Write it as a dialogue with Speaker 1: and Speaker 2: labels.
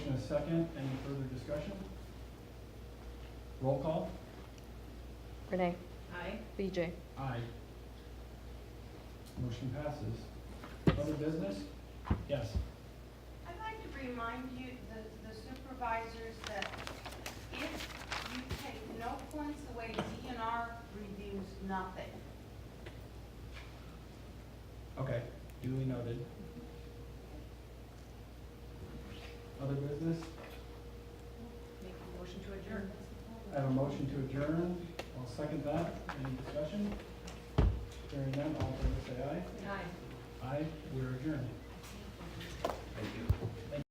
Speaker 1: second. Any further discussion? Roll call?
Speaker 2: Renee,
Speaker 3: Aye.
Speaker 2: BJ,
Speaker 1: Aye. Motion passes. Other business? Yes.
Speaker 4: I'd like to remind you, the the supervisors, that if you take no points away, DNR reviews nothing.
Speaker 1: Okay, duly noted. Other business?
Speaker 3: Make a motion to adjourn.
Speaker 1: I have a motion to adjourn. I'll second that. Any discussion? Hearing none, all in favor say aye.
Speaker 3: Aye.
Speaker 1: Aye, we're adjourned.